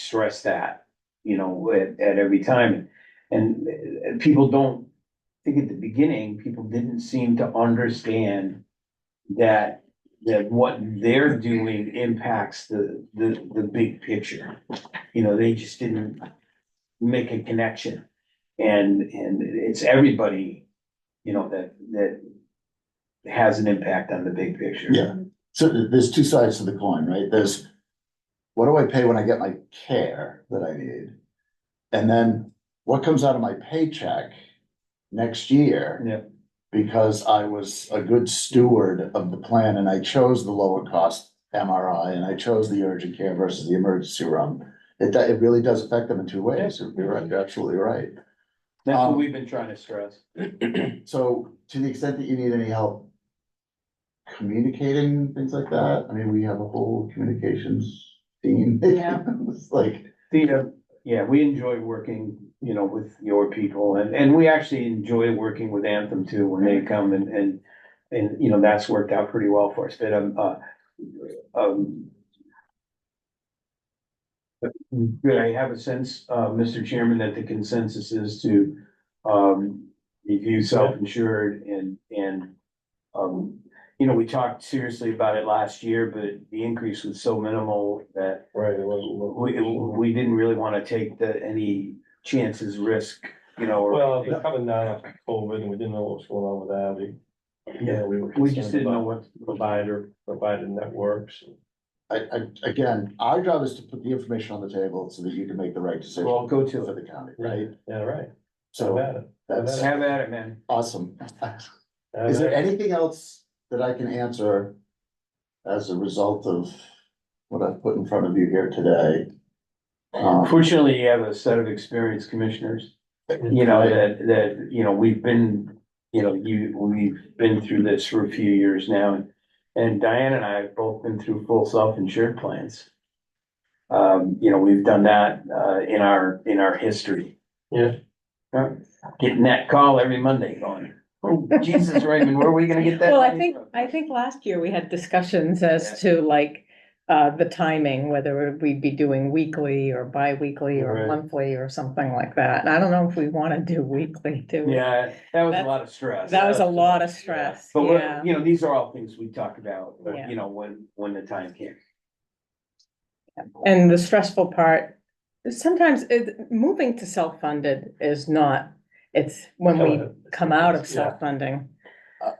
stress that, you know, at, at every time. And uh, people don't, I think at the beginning, people didn't seem to understand that, that what they're doing impacts the, the, the big picture. You know, they just didn't make a connection. And, and it's everybody, you know, that, that has an impact on the big picture. Yeah, so th- there's two sides to the coin, right? There's what do I pay when I get my care that I need? And then what comes out of my paycheck next year? Yeah. Because I was a good steward of the plan and I chose the lower cost MRI and I chose the urgent care versus the emergency room. It, do- it really does affect them in two ways. You're right, you're absolutely right. That's what Um, we've been trying to stress. So to the extent that you need any help communicating, things like that, I mean, we have a whole communications team. Yeah. It's like, Thea, yeah, we enjoy working, you know, with your people and, and we actually enjoy working with Anthem too when they come and, and, and, you know, that's worked out pretty well for us, but, um, uh, um, good, I have a sense, uh, Mr. Chairman, that the consensus is to, um, review self-insured and, and, um, you know, we talked seriously about it last year, but the increase was so minimal that Right, it wasn't. we, we didn't really wanna take the, any chances, risk, you know, Well, or, they're coming down after COVID and we didn't know what was going on with that. We, Yeah, yeah, we were. we just concerned didn't know about what. Provider, provider networks. I, I, again, our job is to put the information on the table so that you can make the right decision. Well, go to For it. the county, right? Yeah, right. So So bad. that's Have at it, man. awesome. Is there anything else that I can answer as a result of what I've put in front of you here today? Um, Fortunately, you have a set of experienced commissioners, you know, that, that, you know, we've been, you know, you, we've been through this for a few years now. and And Diane and I have both been through full self-insured plans. Um, you know, we've done that, uh, in our, in our history. Yeah. Uh, Getting that call every Monday going, oh, Jesus Raymond, where are we gonna get that? Well, I money think, from?" I think last year we had discussions as to like, uh, the timing, whether we'd be doing weekly or bi-weekly Right. or monthly or something like that. And I don't know if we wanna do weekly, do we? Yeah, that was a That's- lot of stress. That was a lot of stress, But yeah. we're, you know, these are all things we talk about, Yeah. you know, when, when the time came. And the stressful part, sometimes it, moving to self-funded is not, it's when we come out of stuff. self-funding.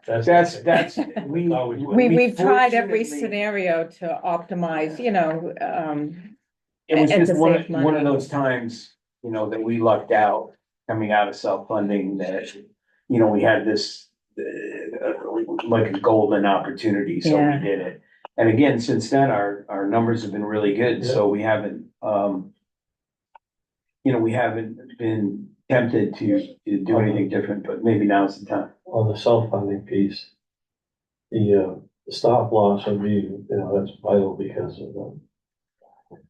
That's, that's, we. Always will. We, we've tried every fortunately- scenario to optimize, you know, um, It was and just to one, of- save one of money. those times, you know, that we lucked out, coming out of self-funding that, you know, we had this. uh, Like a golden opportunity, so we Yeah. did it. And again, since then, our, our numbers have been really good, so we haven't, um. You know, we haven't been tempted to, to do anything different, but maybe now's the time. On the self-funding piece, the, uh, the stop loss would be, you know, that's vital because of um,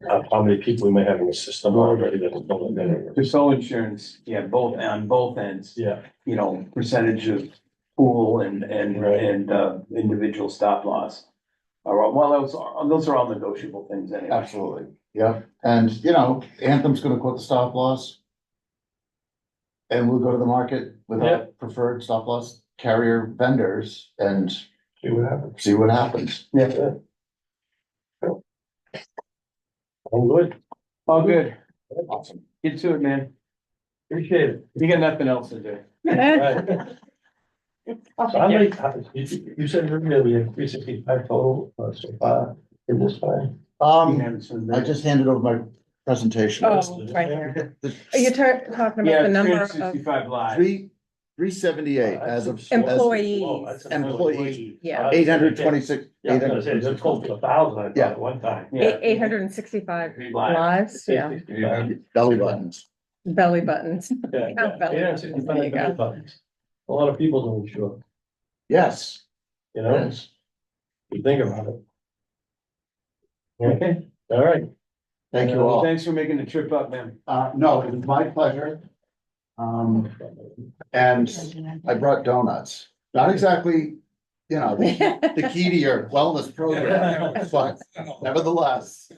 how- how many people we may have in the system already that are not getting it. There's so insurance, yeah, both, on both ends. Yeah, you know, percentage of pool and, and, Right. and, uh, individual stop loss. Or, well, those are, those are all negotiable things anyway. Absolutely, yeah, and you know, Anthem's gonna quote the stop loss. And we'll go to the market with Yeah. our preferred stop loss carrier vendors and see what happens. see what happens. I'm good. All good. Awesome. Get to it, man. Appreciate it. You got nothing else to do. Right. So how many, how- you, you said earlier we had three sixty-five total uh, so far in this time. Um, I just handed over my presentation. oh, right here. Are you tar- talking about Yeah, the three number hundred of, sixty-five live. Three, three seventy-eight Uh, as of. Employee. Employees. yeah, Eight hundred twenty-six. Yeah, I was gonna say, they're close to a thousand, I thought, Yeah. at one time. Yeah. eight, eight hundred and sixty-five Live. lives, yeah, Belly buttons. belly buttons. Count belly Yeah, buttons, there you sixty-five go. belly buttons. A lot of people don't insure, Yes, you know, yes. you think about it. Okay. All right, Thank you all. Thanks for making the trip up, man. Uh, no, it was my pleasure. Um, and I brought donuts, not exactly, you know, the the key to your wellness program, but nevertheless,